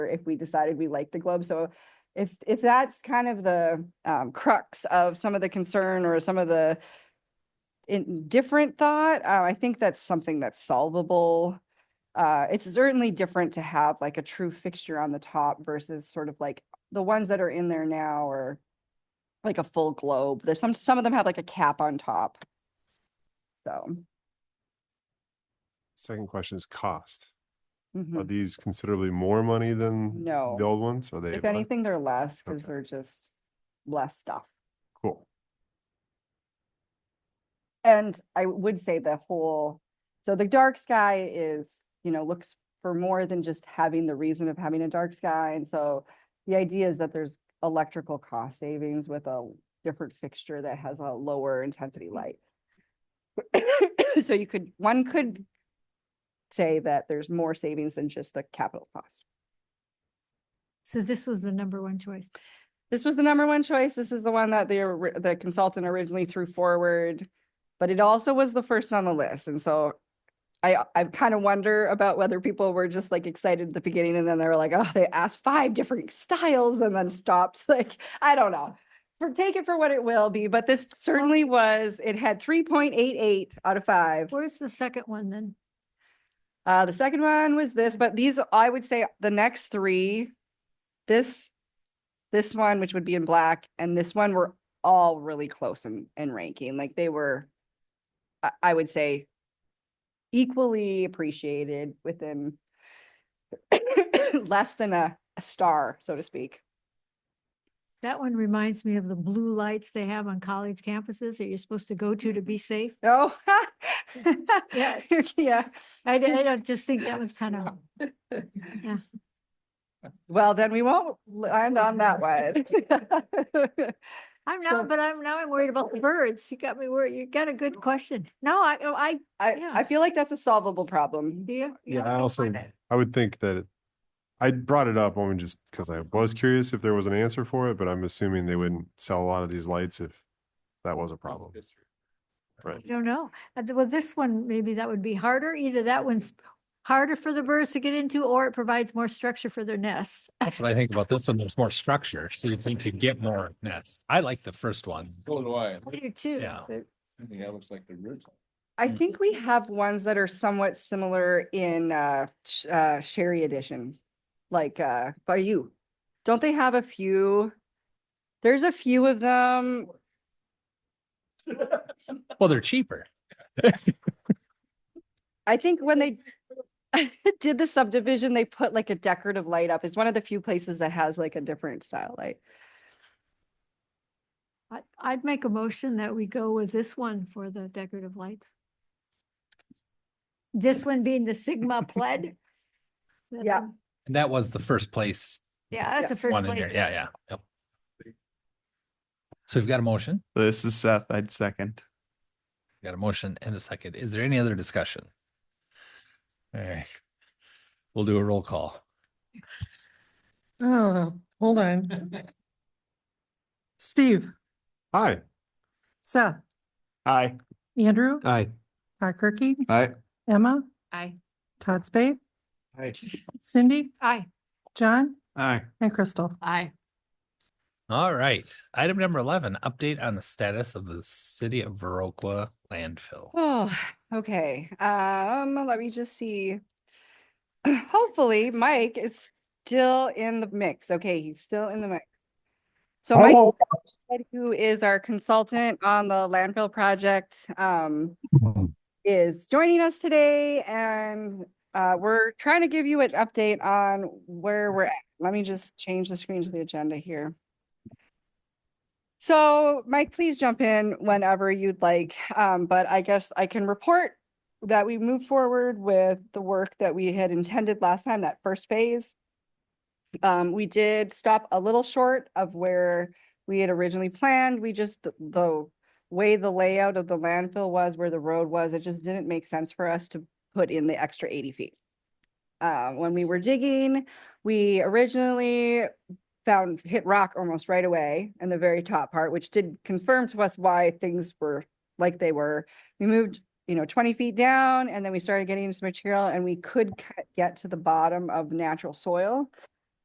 if we decided we liked the Globe. So if, if that's kind of the um, crux of some of the concern or some of the in different thought, uh, I think that's something that's solvable. Uh, it's certainly different to have like a true fixture on the top versus sort of like the ones that are in there now or like a full globe. There's some, some of them have like a cap on top. So. Second question is cost. Are mhm. these considerably more money than No. the old ones? Are they? If le- anything, they're less because Okay. they're just less stuff. Cool. And I would say the whole, so the dark sky is, you know, looks for more than just having the reason of having a dark sky. And so the idea is that there's electrical cost savings with a different fixture that has a lower intensity light. So you could, one could say that there's more savings than just the capital cost. So this was the number one choice. This was the number one choice. This is the one that the, ori- the consultant originally threw forward, but it also was the first on the list. And so I, I kind of wonder about whether people were just like excited at the beginning and then they were like, oh, they asked five different styles and then stopped. Like, I don't know. For, take it for what it will be, but this certainly was, it had three point eight eight out of five. Where's the second one then? Uh, the second one was this, but these, I would say the next three, this, this one, which would be in black, and this one were all really close in, in ranking, like they were, I, I would say equally appreciated within less than a, a star, so to speak. That one reminds me of the blue lights they have on college campuses that you're supposed to go to to be safe. Oh. Yeah. Yeah. I, d- I don't just think that was kind of, Well, then we won't land on that one. I'm So- not, but I'm now I'm worried about the birds. You got me worried. You got a good question. No, I, oh, I, I, Yeah. I feel like that's a solvable problem. do you? Yeah, I I don't also, find that. I would think that it- I brought it up only just because I was curious if there was an answer for it, but I'm assuming they wouldn't sell a lot of these lights if that was a problem. I don't know. Uh, th- Well, this one, maybe that would be harder. Either that one's harder for the birds to get into or it provides more structure for their nests. That's what I think about this one. There's more structure, so you think you get more nests. I like the first one. So do I. I I do too. Yeah. but- think that looks like the original. I Mm. think we have ones that are somewhat similar in uh, sh- uh, Sherry Edition, like uh, by you. Don't they have a few? There's a few of them. Well, they're cheaper. I think when they did the subdivision, they put like a decorative light up. It's one of the few places that has like a different style light. I, I'd make a motion that we go with this one for the decorative lights. This one being the Sigma pled. That Yeah. one. And that was the first place Yeah, that's the Yes. first one in place. there. Yeah, yeah. Yep. So we've got a motion, This is Seth. I'd second. We've got a motion and a second. Is there any other discussion? All right. We'll do a roll call. Oh, hold on. Steve, Hi. Seth, Aye. Andrew, Aye. Todd Kirkie, Aye. Emma. Aye. Todd Spade. Aye. Cindy, Aye. John, Aye. and Crystal. Aye. All right. Item number eleven, update on the status of the city of Viroqua landfill. Oh, okay. Um, let me just see. Hopefully Mike is still in the mix. Okay, he's still in the mix. So Mike, who is our consultant on the landfill project, um, is joining us today and uh, we're trying to give you an update on where we're at. Let me just change the screen to the agenda here. So Mike, please jump in whenever you'd like, um, but I guess I can report that we moved forward with the work that we had intended last time, that first phase. Um, we did stop a little short of where we had originally planned. We just, the- the way the layout of the landfill was, where the road was, it just didn't make sense for us to put in the extra eighty feet. Uh, when we were digging, we originally found, hit rock almost right away in the very top part, which did confirm to us why things were like they were. We moved, you know, twenty feet down and then we started getting some material and we could cut- get to the bottom of natural soil.